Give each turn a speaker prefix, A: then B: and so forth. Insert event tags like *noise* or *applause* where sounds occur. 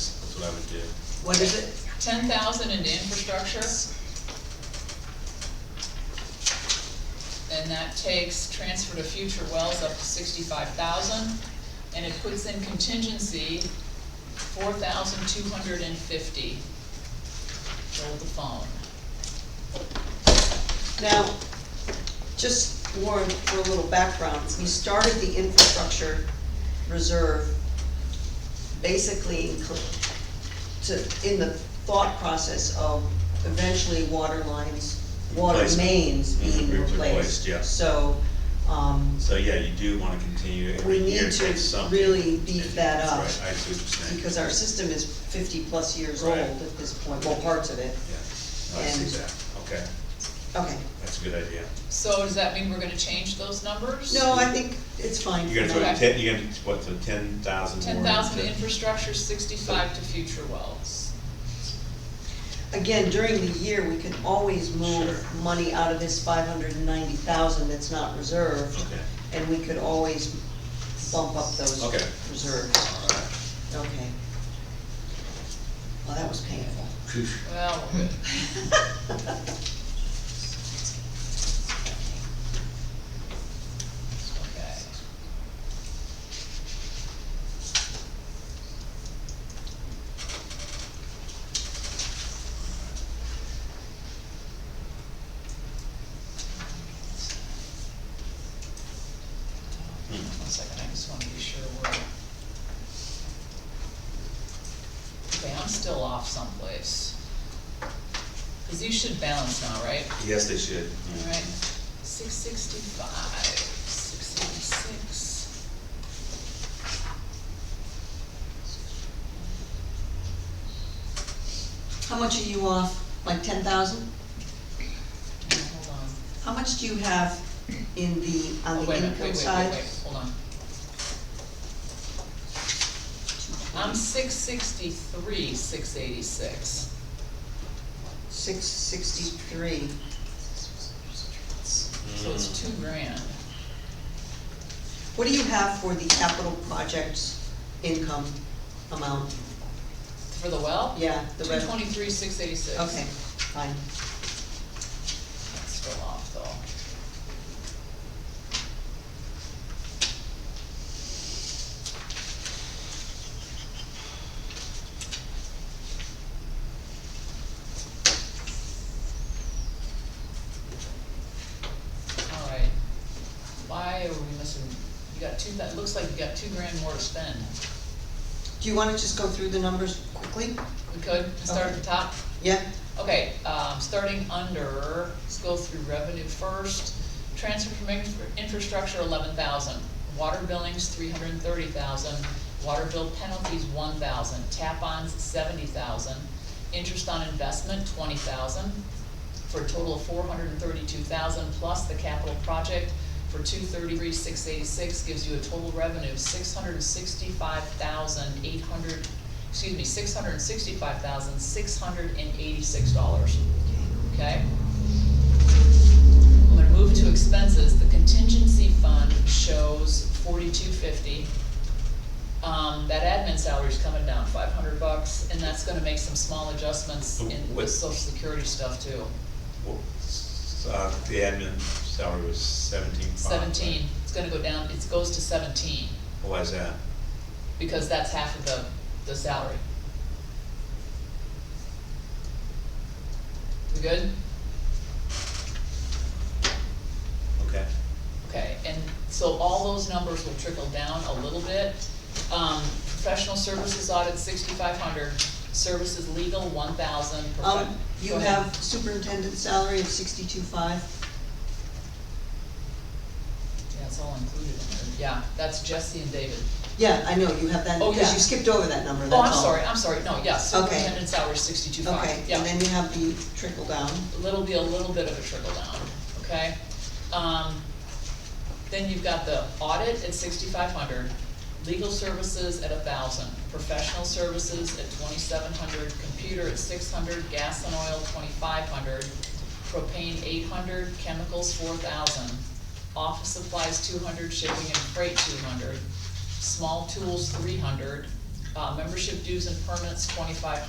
A: I would do.
B: What is it?
C: ten thousand into infrastructure. And that takes transfer to future wells up to sixty-five thousand, and it puts in contingency four thousand two hundred and fifty. Hold the phone.
D: Now, just Warren, for a little background, we started the infrastructure reserve basically in cl- to, in the thought process of eventually water lines, water
A: Replacement.
D: mains being
A: Mhm,
D: replaced.
A: replaced, yeah.
D: So, um,
A: So, yeah, you do wanna continue every
D: We need
A: year,
D: to
A: take something.
D: really beef
A: If-
D: that
A: that's
D: up,
A: Right, I see what you're saying.
D: because our system is fifty-plus years old
A: Right.
D: at this point, well, parts of it.
A: Yeah, I see
D: and-
A: that, okay,
D: Okay,
A: that's a good idea.
C: So does that mean we're gonna change those numbers?
D: no, I think it's fine.
A: You're
D: for
A: gonna
D: now.
A: throw
C: Okay.
A: ten, you're gonna, what, so ten thousand more?
C: Ten thousand to
A: into-
C: infrastructure, sixty-five to future wells.
D: Again, during the year, we can always move
A: Sure.
D: money out of this five hundred and ninety thousand that's not reserved,
A: Okay,
D: and we could always bump up those
A: Okay.
D: reserves.
A: alright.
D: Okay. Well, that was painful.
C: *laughs* Well, we're good. okay. One second, I just wanna be sure we're. Okay, I'm still off someplace. Cause these should balance now, right?
A: Yes, they should.
C: Alright, six sixty-five, six eighty-six.
D: How much are you off? Like ten thousand?
C: Hold on.
D: How much do you have in the,
C: Oh,
D: on the
C: wait a minute,
D: income
C: wait, wait,
D: side?
C: wait, wait, hold on. I'm six sixty-three, six eighty-six.
D: Six sixty-three.
C: So it's two grand.
D: What do you have for the capital projects income amount?
C: For the well?
D: Yeah, the
C: Two
D: rev-
C: twenty-three, six eighty-six.
D: Okay, fine.
C: That's still off though. Alright, why are we missing, you got two, that looks like you got two grand more to spend.
D: Do you wanna just go through the numbers quickly?
C: We could, start at the top?
D: Yeah,
C: Okay, um, starting under, let's go through revenue first. Transfer from infra- infrastructure, eleven thousand. Water billings, three hundred and thirty thousand. Water bill penalties, one thousand. Tap-ons, seventy thousand. Interest on investment, twenty thousand, for a total of four hundred and thirty-two thousand, plus the capital project for two thirty-three, six eighty-six, gives you a total revenue of six hundred and sixty-five thousand, eight hundred, excuse me, six hundred and sixty-five thousand, six hundred and eighty-six dollars, okay? I'm gonna move to expenses, the contingency fund shows forty-two fifty. Um, that admin salary's coming down five hundred bucks, and that's gonna make some small adjustments in
A: What-
C: with social security stuff too,
A: Well, s- Uh, the admin salary was seventeen five.
C: seventeen, it's gonna go down, it goes to seventeen,
A: Why is that?
C: because that's half of the, the salary. We good?
A: Okay.
C: Okay, and so all those numbers will trickle down a little bit. Um, professional services audit, sixty-five hundred, services legal, one thousand.
D: um, you have superintendent salary of sixty-two five,
C: That's all included in there, yeah, that's Jesse and David.
D: yeah, I know, you have that,
C: Oh,
D: because
C: yeah.
D: you skipped over that number, that's
C: Oh,
D: all.
C: I'm sorry, I'm sorry, no, yeah,
D: Okay.
C: superintendent salary, sixty-two
D: Okay,
C: five, yeah.
D: and then you have the trickle down,
C: It'll be a little bit of a trickle down, okay? Um, then you've got the audit at sixty-five hundred, legal services at thousand, professional services at twenty-seven hundred, computer at six hundred, gas and oil twenty-five hundred, propane eight hundred, chemicals four thousand, office supplies two hundred, shipping and freight two hundred, small tools three hundred, Uh, membership dues and permits, twenty-five